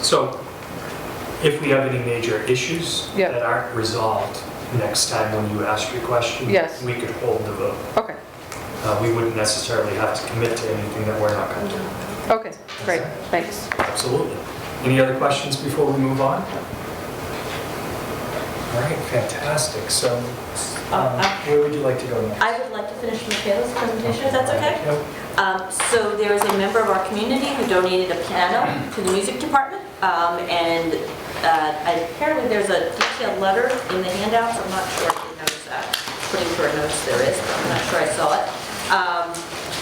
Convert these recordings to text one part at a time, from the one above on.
So if we have any major issues Yeah. that aren't resolved next time when you ask your question, Yes. we could hold the vote. Okay, Uh, We wouldn't necessarily have to commit to anything that we're not going to do. okay, great, thanks. Absolutely. Any other questions before we move on? All right, fantastic. So um, where would you like to go next? Uh, I would like to finish Michaela's presentation, if that's okay. Yep. Um, So there is a member of our community who donated a piano to the music department, um, and uh, apparently there's a detailed letter in the handouts, I'm not sure if uh, you noticed that, pretty sure I noticed there is, but I'm not sure I saw it. Um,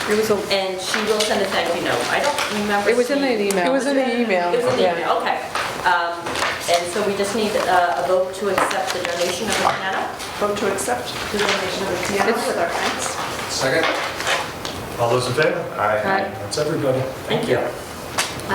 It was, a- And she will send a thank you note, I don't remember. it was in seeing- an email. It was in the email. It was in the yeah. email, okay. Um, And so we just need uh, a vote to accept the donation of the piano. Vote to accept the donation of the piano with our thanks. Second? All those in favor? Aye. That's everybody. Thank you.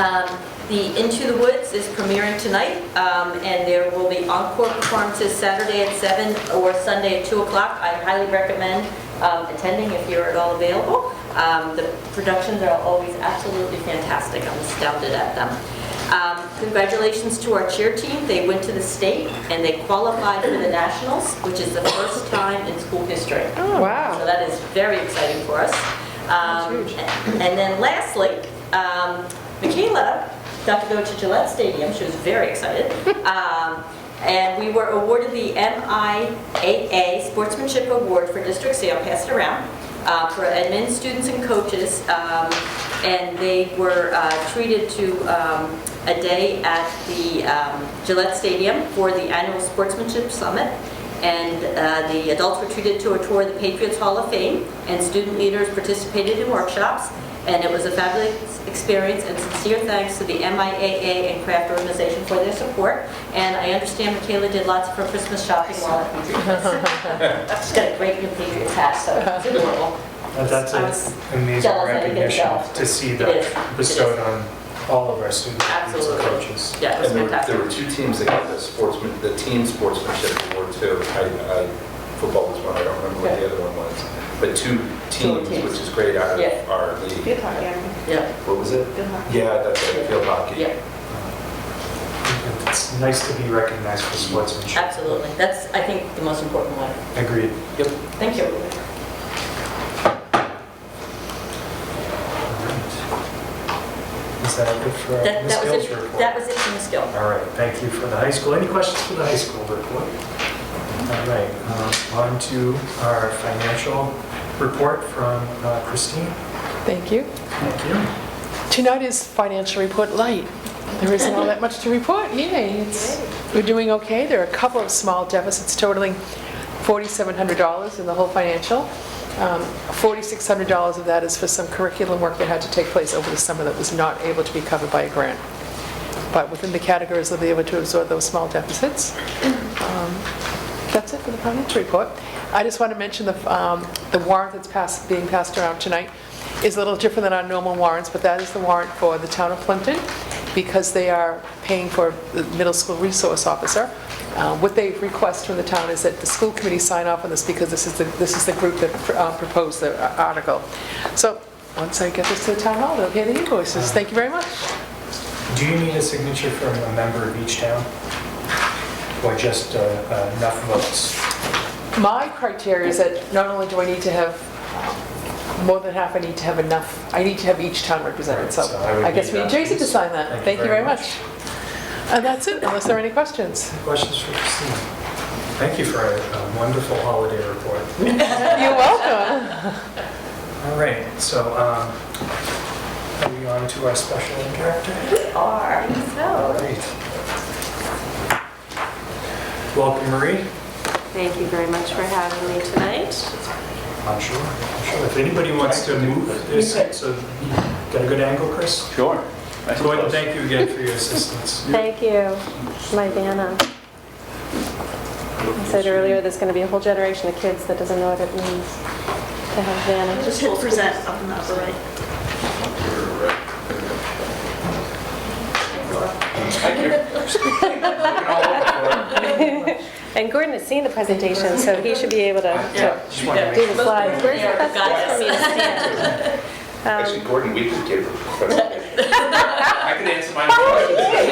Um, The Into the Woods is premiering tonight, um, and there will be encore performances Saturday at 7 or Sunday at 2 o'clock. I highly recommend um, attending if you're at all available. Um, The productions are always absolutely fantastic, I'm astounded at them. Um, Congratulations to our cheer team, they went to the state and they qualified for the Nationals, which is the first time in school history. So Oh, Wow, that is very exciting for us. Um, And then lastly, um, Michaela got to go to Gillette Stadium, she was very excited. Um, And we were awarded the MIAA Sportsmanship Award for District Sale, passed around, uh, for admin students and coaches. Um, And they were uh, treated to um, a day at the um, Gillette Stadium for the annual Sportsmanship Summit. And uh, the adults were treated to a tour of the Patriots Hall of Fame, and student leaders participated in workshops. And it was a fabulous experience, and sincere thanks to the MIAA and Craft Organization for their support. And I understand Michaela did lots of her Christmas shopping while at Patriots. She's got a great new Patriots hat, so it's adorable. Uh, That's I an was amazing jealous I didn't get recognition involved. to see It is. that It bestowed is. on all of our students and Absolutely. coaches. Yeah, it was And there were- fantastic. there were two teams that got the sportsman, the team sportsmanship award too. I, I, football was one, I don't remember what the other one was. But two teams, teams. which is great out Yeah. of our league. Good hockey, I mean, Yeah, What was it? good hockey. Yeah, that's it, field hockey. yeah, Uh, It's nice to be recognized for sportsmanship. absolutely. That's, I think, the most important one. Agreed. Yep. Thank you. Is that it for That Ms. that was Gill's it. report? That was it from Ms. Gill. All right, thank you for the high school. Any questions for the high school report? All right, uh, on to our financial report from uh, Christine. Thank you. Thank you. Tonight is financial report light. There isn't all that much to report, yay. it's- We're doing okay, there are a couple of small deficits totaling $4,700 in the whole financial. Um, $4,600 of that is for some curriculum work that had to take place over the summer that was not able to be covered by a grant. But within the categories, they'll be able to absorb those small deficits. Um, That's it for the financial report. I just want to mention the, um, the warrant that's passed, being passed around tonight is a little different than our normal warrants, but that is the warrant for the town of Plimpton because they are paying for the middle school resource officer. Uh, What they request from the town is that the school committee sign off on this because this is the, this is the group that uh, proposed the article. So, once I get this to the town hall, they'll pay the invoices. Thank you very much. Do you need a signature from a member of each town? Or just uh, uh, enough votes? My criteria is that not only do I need to have more than half, I need to have enough, I need to have each town represented, so Right, so I would I guess need we need that Jason to piece. sign that. Thank you very much. And that's it, unless there are any questions. Questions for Christine? Thank you for a a wonderful holiday report. You're welcome. All right, so um, are we on to our special character? Are, so. All right. Welcome, Marie. Thank you very much for having me tonight. I'm sure. I'm sure. If anybody wants to move this, so you got a good angle, Chris? Sure. Nice and Go ahead close. and thank you again for your assistance. Thank you, my Vanna. I said earlier, there's going to be a whole generation of kids that doesn't know what it means to have Vanna. Just hit present up in the upper right. And Gordon has seen the presentation, so he should be able to to Just wanted to make- do the slides. Where's the best place for me to stand? Actually, Gordon Weaver gave her. I could answer my own questions.